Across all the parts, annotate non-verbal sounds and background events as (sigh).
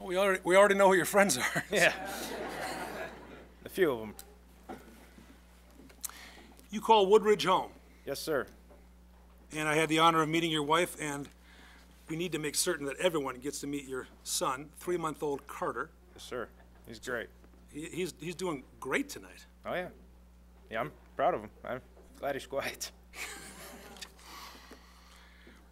We already, we already know who your friends are. (laughs) Yeah. (laughs) A few of them. You call Woodridge home, Yes, sir. and I had the honor of meeting your wife, and we need to make certain that everyone gets to meet your son, three-month-old Carter. Yes, sir. He's great. He, he's, he's doing great tonight. Oh, yeah. Yeah, I'm proud of him. I'm glad he's quiet. (laughs)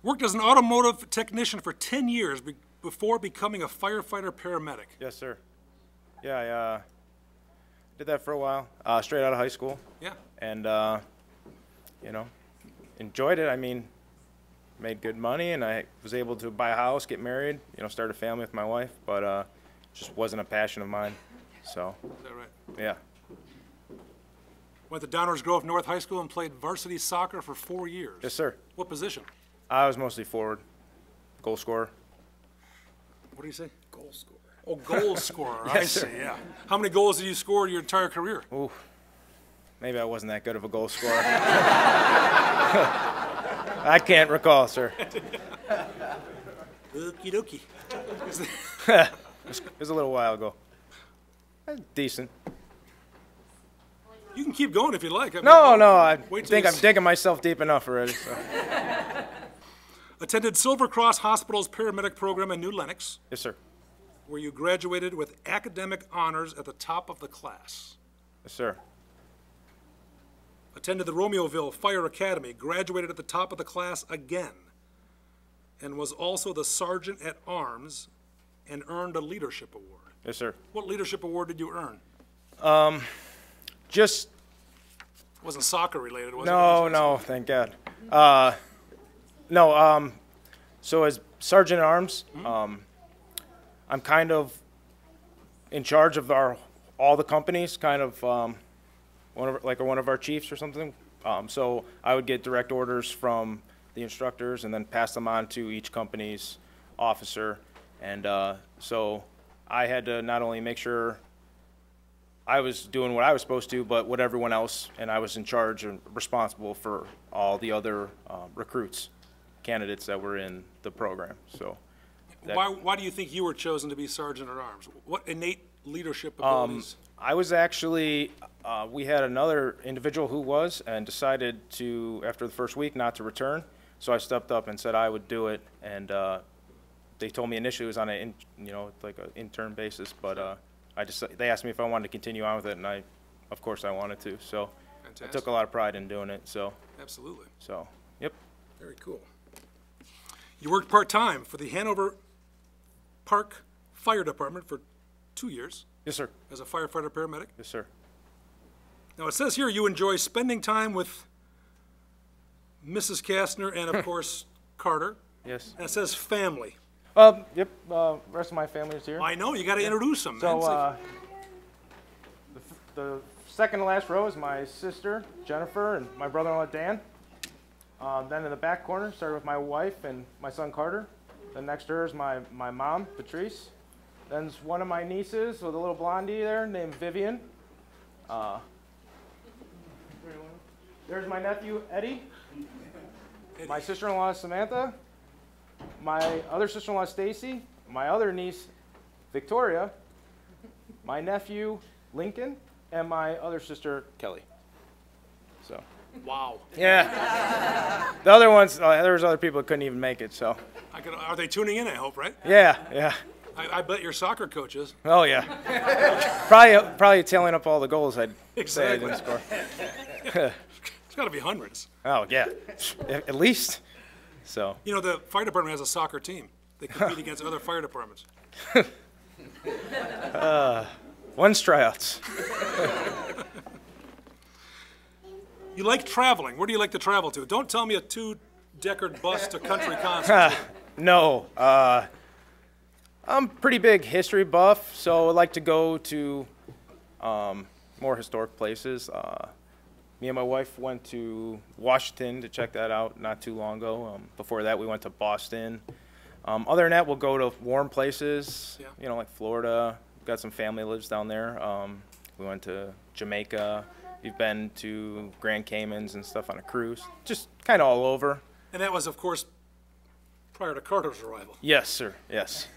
Worked as an automotive technician for 10 years be- before becoming a firefighter paramedic. Yes, sir. Yeah, I uh, did that for a while, uh, straight out of high school. Yeah. And, uh, you know, enjoyed it. I mean, made good money and I was able to buy a house, get married, you know, start a family with my wife, but uh, just wasn't a passion of mine. So, Is that right? yeah. Went to Downers Grove North High School and played varsity soccer for four years. Yes, sir. What position? I was mostly forward, goal scorer. What do you say? Goal scorer. Oh, goal (laughs) scorer. I see, yeah. How many goals did you score your entire career? Maybe I wasn't that good of a goal scorer. (laughs) I can't recall, sir. Okie dokie. (laughs) It was a little while ago. Uh, Decent. You can keep going if you like. I mean, No, no, I Wait till think you I'm see- digging myself deep enough already. So. Attended Silver Cross Hospital's paramedic program in New Lenox, yes, sir. where you graduated with academic honors at the top of the class. Yes, sir. Attended the Romeoville Fire Academy, graduated at the top of the class again, and was also the sergeant at arms and earned a leadership award. Yes, sir. What leadership award did you earn? Just Wasn't soccer related, was it? no, no. Thank God. Uh, no. Um, so as sergeant at arms, um, I'm kind of in charge of our all the companies. Kind of um, one of like one of our chiefs or something. Um, so I would get direct orders from the instructors and then pass them on to each company's officer. And uh, so I had to not only make sure I was doing what I was supposed to, but what everyone else, and I was in charge and responsible for all the other um, recruits, candidates that were in the program. So Why, why do you think you were chosen to be sergeant at arms? What innate leadership Um, abilities? I was actually, uh, we had another individual who was and decided to, after the first week, not to return. So I stepped up and said I would do it. And uh, they told me initially it was on an, in, you know, like an intern basis, but uh, I just, they asked me if I wanted to continue on with it, and I, of course, I wanted to. So I took Fantastic. a lot of pride in doing it. So, Absolutely. so, yep. Very cool. You worked part-time for the Hanover Park Fire Department for two years Yes, sir. as a firefighter paramedic. Yes, sir. Now, it says here you enjoy spending time with Mrs. Kastner and, (laughs) of course, Carter. Yes. And it says family. Um, yep. Uh, rest of my family is here. I know, you got to introduce them. So, It's like- uh, the, f- the second to last row is my sister, Jennifer, and my brother in law, Dan. Uh, then in the back corner, started with my wife and my son, Carter. Then next to her is my, my mom, Patrice. Then's one of my nieces with a little blondie there named Vivian. Uh, there's my nephew, Eddie. My sister in law, Samantha. My other sister in law, Stacy. My other niece, Victoria my nephew Lincoln, and my other sister Kelly. So wow. yeah, the other ones uh, there was other people that couldn't even make it. So I could, are they tuning in, I hope, right? yeah, yeah, I, I bet your soccer coach is. oh yeah, (laughs) probably probably tailing up all the goals I'd say I Exactly. didn't score. It's got to be hundreds. Oh yeah, at at least. So You know, the fire department has a soccer team. They (laughs) compete against other fire departments. one's tryouts. You like traveling. Where do you like to travel to? Don't tell me a two-decker bus to country concert. No, uh, I'm pretty big history buff, so I like to go to um, more historic places. Uh, me and my wife went to Washington to check that out not too long ago. Um, before that, we went to Boston. Um, other than that, we'll go to warm places, Yeah. you know, like Florida. got some family lives down there. Um, we went to Jamaica. We've been to Grand Caymans and stuff on a cruise. Just kind of all over. And that was, of course, prior to Carter's arrival. Yes, sir. Yes.